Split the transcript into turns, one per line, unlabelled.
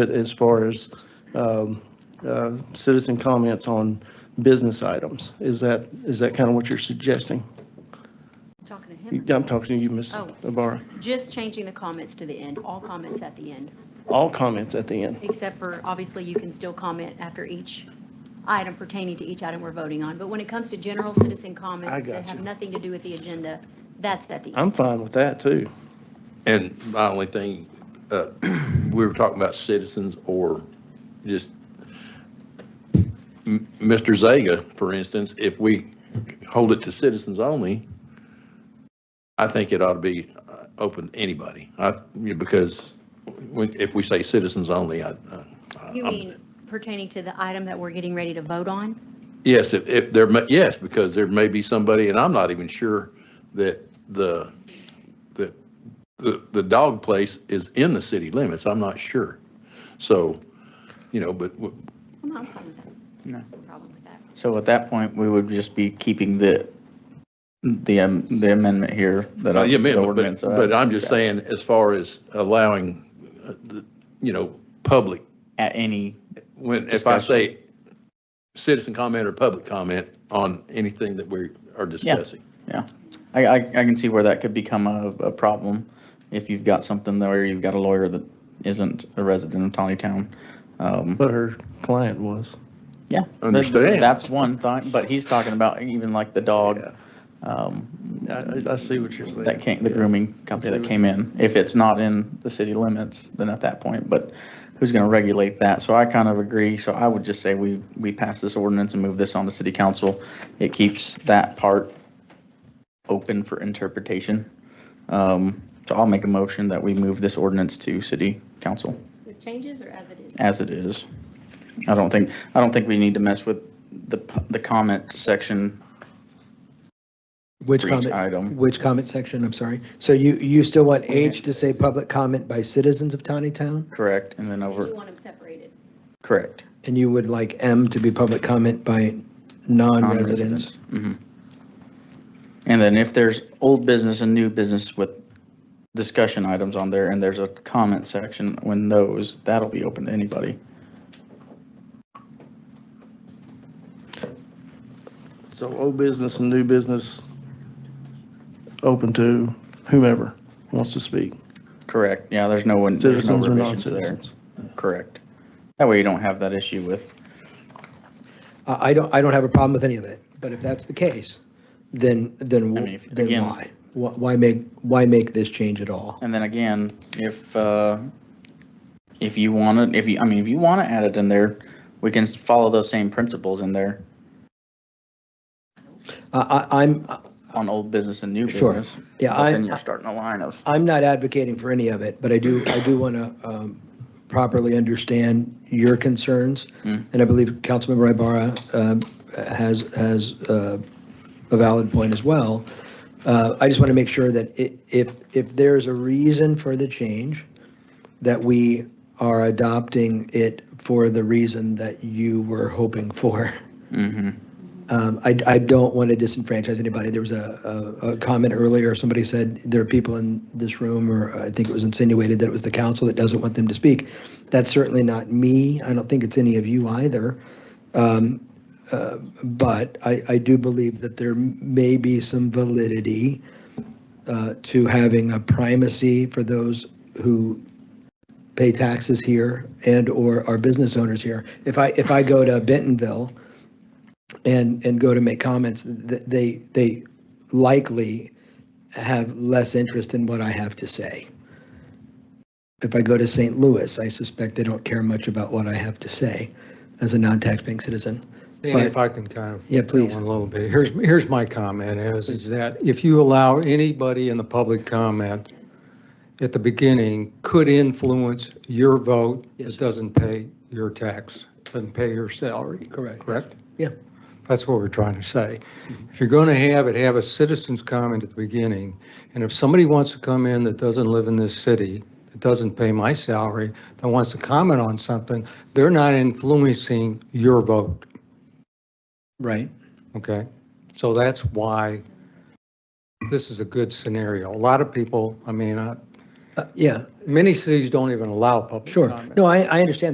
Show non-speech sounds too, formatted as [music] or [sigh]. But as far as um, uh, citizen comments on business items, is that, is that kind of what you're suggesting?
Talking to
You-
him.
I'm talking to you, Ms.
Oh.
Ibarra.
Just changing the comments to the end, all comments at the end,
All comments at the end.
except for, obviously, you can still comment after each item pertaining to each item we're voting on. But when it comes to general citizen
I
comments
got
that have
you.
nothing to do with the agenda, that's at the end.
I'm fine with that, too.
And my only thing, uh, [clears throat] we were talking about citizens or just, M- Mr. Zaga, for instance, if we hold it to citizens only, I think it ought to be uh, open to anybody, I, yeah, because when, if we say citizens only, I. uh, I-
You
I'm-
mean pertaining to the item that we're getting ready to vote on?
Yes, if, if there, may- yes, because there may be somebody, and I'm not even sure that the, that the, the dog place is in the city limits. I'm not sure. So, you know, but w-
I'm not fine with that.
No.
Problem with that.
So at that point, we would just be keeping the, the am- the amendment here that I,
Well, yeah, man,
the
Uh, but-
ordinance.
But but I'm just
uh,
saying, as far as allowing, uh, the you know, public,
At any,
when, if I
Discussion.
say citizen comment or public comment on anything that we are discussing.
I, I, I can see where that could become a, a problem if you've got something there, you've got a lawyer that isn't a resident of Tawny Town. Um,
But her client was.
Yeah. that-
Understand.
That's one thought, but he's talking about even like the dog, um,
Yeah, I, I see what you're saying.
that came, the grooming company that came in. If it's not in the city limits, then at that point, but who's going to regulate that? So I kind of agree. So I would just say we, we pass this ordinance and move this on to city council. It keeps that part open for interpretation. Um, So I'll make a motion that we move this ordinance to city council
With changes or as it is?
as it is. I don't think, I don't think we need to mess with the, p- the comment section
Which
for each
comment,
item.
which comment section, I'm sorry? So you, you still want H to say public comment by citizens of Tawny Town?
Correct, and then
You
over,
want them separated.
correct.
And you would like M to be public comment by non-residents?
Mhm. And then if there's old business and new business with discussion items on there, and there's a comment section, when those, that'll be open to anybody.
So old business and new business, open to whomever wants to speak,
Correct, yeah, there's no one, there's no
citizens or
revisions there.
non-citizens.
Correct. That way you don't have that issue with,
I, I don't, I don't have a problem with any of it, but if that's the case, then, then,
I
wh-
mean, if-
then
again-
why? Wh- Why make, why make this change at all?
and then again, if, uh, if you want to, if you, I mean, if you want to add it in there, we can s- follow those same principles in there
I, I, I'm,
on old business and new
Sure.
business.
yeah,
But then
I'm,
you're starting a line of,
I'm not advocating for any of it, but I do, I do want to um, properly understand your concerns.
Hmm.
And I believe Councilmember Ibarra um, has, has uh, a valid point as well. Uh, I just want to make sure that i- if, if there's a reason for the change, that we are adopting it for the reason that you were hoping for.
mhm.
Um, I, I don't want to disenfranchise anybody. There was a, a, a comment earlier, somebody said there are people in this room, or I think it was insinuated that it was the council that doesn't want them to speak. That's certainly not me. I don't think it's any of you either. Um, uh, But I, I do believe that there may be some validity uh, to having a primacy for those who pay taxes here and/or are business owners here. If I, if I go to Bentonville and and go to make comments, th- they they likely have less interest in what I have to say. If I go to St. Louis, I suspect they don't care much about what I have to say as a non-taxpaying citizen.
Danny,
But-
if I can kind of.
Yeah, please.
One little bit. Here's, here's my comment is, is that if you allow anybody in the public comment at the beginning could influence your vote,
Yes.
it doesn't pay your tax, doesn't pay your salary,
Correct.
correct?
Yeah.
That's what we're trying to say.
Mm-hmm.
If you're going to have it, have a citizen's comment at the beginning. And if somebody wants to come in that doesn't live in this city, that doesn't pay my salary, that wants to comment on something, they're not influencing your vote.
Right.
Okay, so that's why this is a good scenario. A lot of people, I mean, I-
Uh, Yeah,
Many cities don't even allow public
sure.
comment.
No, I, I understand